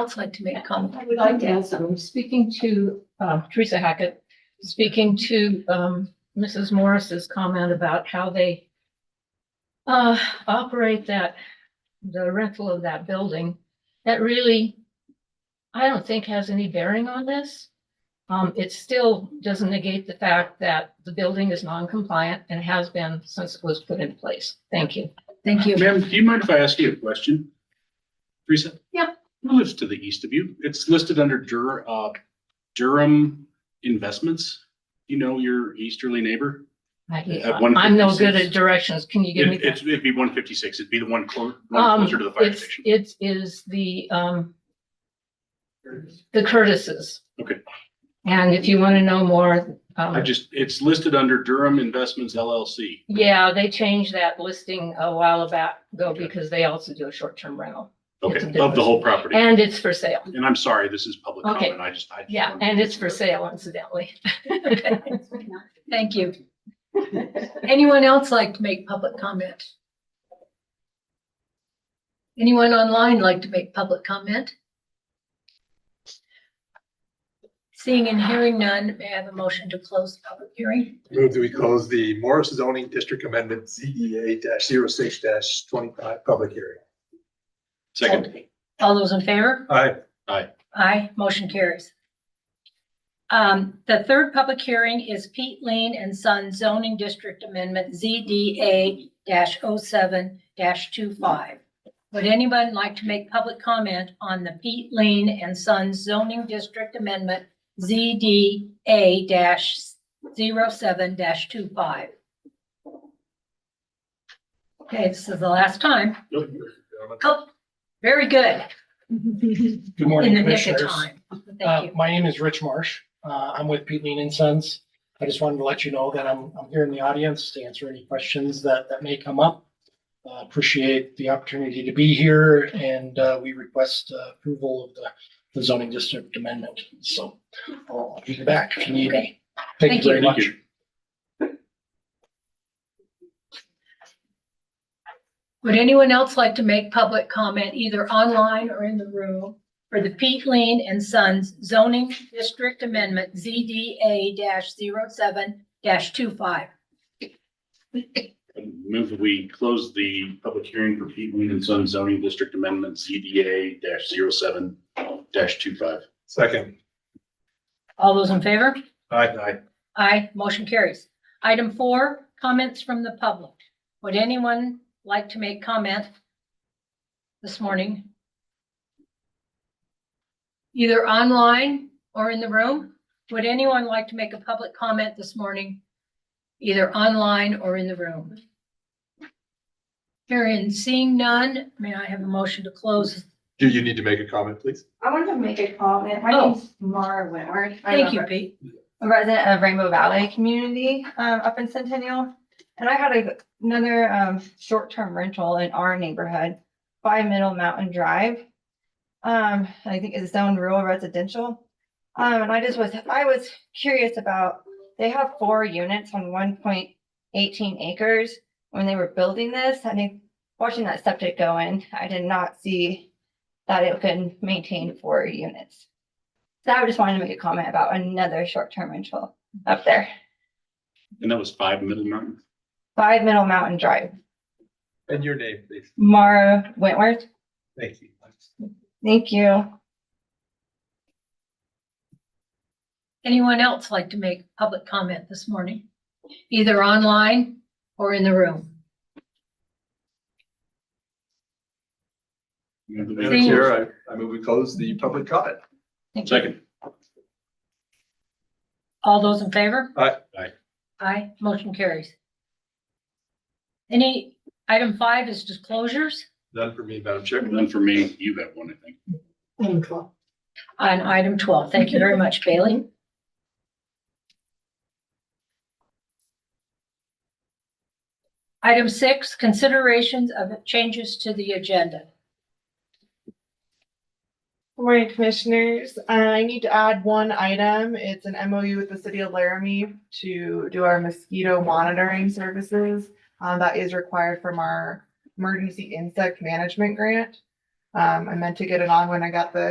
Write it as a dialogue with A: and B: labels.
A: else like to make a comment?
B: I would like to ask, I'm speaking to uh, Teresa Hackett, speaking to um, Mrs. Morris's comment about how they uh, operate that, the rental of that building, that really, I don't think has any bearing on this. Um, It still doesn't negate the fact that the building is non-compliant and has been since it was put in place. Thank you.
A: Thank you.
C: Ma'am, do you mind if I ask you a question? Teresa?
B: Yeah.
C: Who lives to the east of you? It's listed under Dur, uh, Durham Investments. You know your easterly neighbor?
B: I-
C: At
B: I'm no good
C: 156.
B: at directions. Can you give me?
C: It-
B: that?
C: It's, it'd be one fifty-six. It'd be the one clo- one
B: Um,
C: closer to the fire
B: it's,
C: station.
B: it is the, um, the Curtises.
C: Okay.
B: And if you want to know more,
C: I
B: um,
C: just, it's listed under Durham Investments LLC.
B: yeah, they changed that listing a while about ago because they also do a short-term rental. It's a
C: Okay, of
B: business.
C: the whole property.
B: And it's for sale.
C: And I'm sorry, this is public
B: Okay.
C: comment. I just. I just
B: Yeah,
C: wanted
B: and
C: to-
B: it's for sale incidentally.
A: Thank you. Anyone else like to make public comment? Anyone online like to make public comment? Seeing and hearing none, may I have a motion to close the public hearing?
D: Move that we close the Morris zoning district amendment E ZEA 6 twenty-five public hearing.
C: Second,
A: All those in favor?
D: Aye.
A: Aye, motion carries. Um, the third public hearing is Pete Lean and Son zoning district amendment ZDA 7 25 Would anyone like to make public comment on the Pete Lean and Son zoning district amendment ZDA 7 25 Okay, this is the last time. Oh, very good.
E: Good
A: In
E: morning,
A: the nick of
E: Commissioners.
A: time.
E: Uh,
A: Thank you.
E: My name is Rich Marsh. Uh, I'm with Pete Lean and Sons. I just wanted to let you know that I'm, I'm here in the audience to answer any questions that, that may come up. Uh, Appreciate the opportunity to be here and uh, we request uh, approval of the the zoning district amendment. So I'll be back if you need me. Thank
A: Thank
E: you very
C: you.
E: much.
A: Would anyone else like to make public comment either online or in the room for the Pete Lean and Sons zoning district amendment ZDA 7 25
C: move that we close the public hearing for Pete Ween and Son zoning district amendment ZDA dash zero seven dash two five.
D: Second.
A: All those in favor?
D: Aye. Aye.
A: Aye, motion carries. Item four, comments from the public. Would anyone like to make comment this morning? Either online or in the room? Would anyone like to make a public comment this morning? Either online or in the room? Hearing, seeing none, may I have a motion to close?
D: Do you need to make a comment, please?
F: I wanted to make a comment. My
A: Oh.
F: name's Mara Wentworth. I'm
A: Thank
F: a
A: you, Pete.
F: a resident of Rainbow Valley community um, up in Centennial. And I had a- another um, short-term rental in our neighborhood by Middle Mountain Drive. Um, I think it's zoned rural residential. Um, and I just was, I was curious about, they have four units on one point eighteen acres. When they were building this, I think watching that septic go in, I did not see that it could maintain four units. So I just wanted to make a comment about another short-term rental up there,
C: And that was five Middle Mountain?
F: five Middle Mountain Drive,
D: And your name, please.
F: Mara Wentworth.
D: Thank you.
F: Thank you.
A: Anyone else like to make public comment this morning, either online or in the room?
D: Madam Chair, I, I move we close the public comment.
A: Thank you.
C: Second,
A: All those in favor?
D: Aye.
C: Aye.
A: Aye, motion carries. Any, item five is disclosures.
D: None for me, Madam Chair.
C: none for me. You have one, I think.
A: On item twelve, thank you very much, Bailey. Item six, considerations of changes to the agenda.
G: Good Morning, Commissioners. Uh, I need to add one item. It's an MOU with the City of Laramie to do our mosquito monitoring services. Uh, that is required from our emergency insect management grant. Um, I meant to get it on when I got the